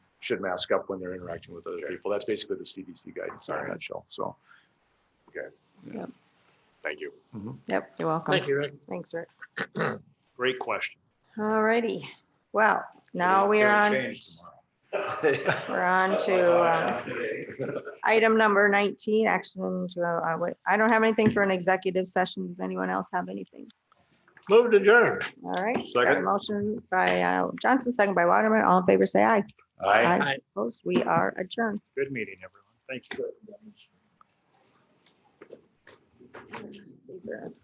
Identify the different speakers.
Speaker 1: should mask up when they're interacting with other people. That's basically the CDC guidance in a
Speaker 2: Alright.
Speaker 1: nutshell, so.
Speaker 2: Thank you.
Speaker 3: Yep, you're welcome.
Speaker 4: Thank you, Rick.
Speaker 3: Thanks, Rick.
Speaker 4: Great question.
Speaker 3: All righty. Well, now we are on, we're on to um, item number 19, action to, uh, wait, I don't have anything for an executive session. Does anyone else have anything?
Speaker 4: Move to adjourn.
Speaker 3: All right. got a
Speaker 1: Second.
Speaker 3: Motion by uh, Johnson, second by Waterman. All in favor, say aye.
Speaker 1: Aye.
Speaker 4: Aye.
Speaker 3: Opposed, we are adjourned.
Speaker 4: Good meeting, everyone. Thank you.
Speaker 3: These are-